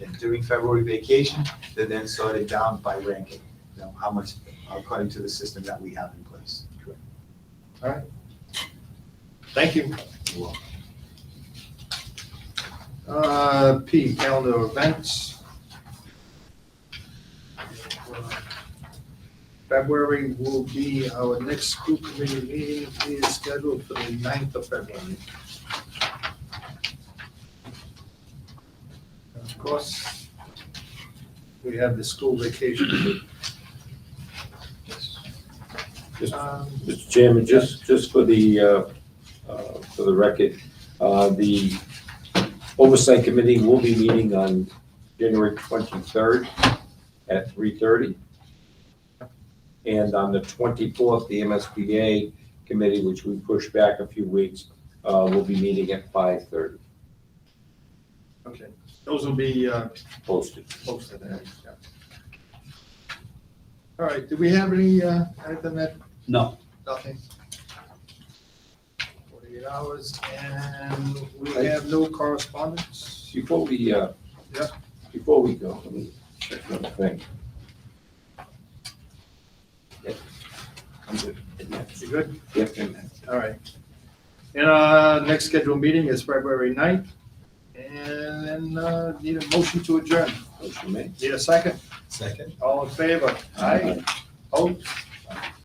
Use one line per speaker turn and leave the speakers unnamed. during February vacation, they're then sorted down by ranking, you know, how much, according to the system that we have in place.
Thank you. Uh, P, calendar events. February will be, our next school committee meeting is scheduled for the 9th of February. And Of course, we have the school vacation.
Yes.
Um,
Mr. Chairman, just, just for the, uh, uh, for the record, uh, the Oversight Committee will be meeting on January 23rd at 3:30. And on the 24th, the MSBA Committee, which we pushed back a few weeks, uh, will be meeting at 5:30,
Okay, those will be uh,
posted.
Close to that, yeah. All right, do we have any, uh, anything that?
No.
Nothing. Forty-eight hours, and we have no correspondence?
Before we, uh,
Yeah.
before we go, let me check one thing. Yep, I'm good.
You good?
Yep, and
All right. And, uh, next scheduled meeting is February ninth, and then, uh, need a motion to adjourn.
motion made.
Need a second?
Second.
All in favor? Aye. Oh,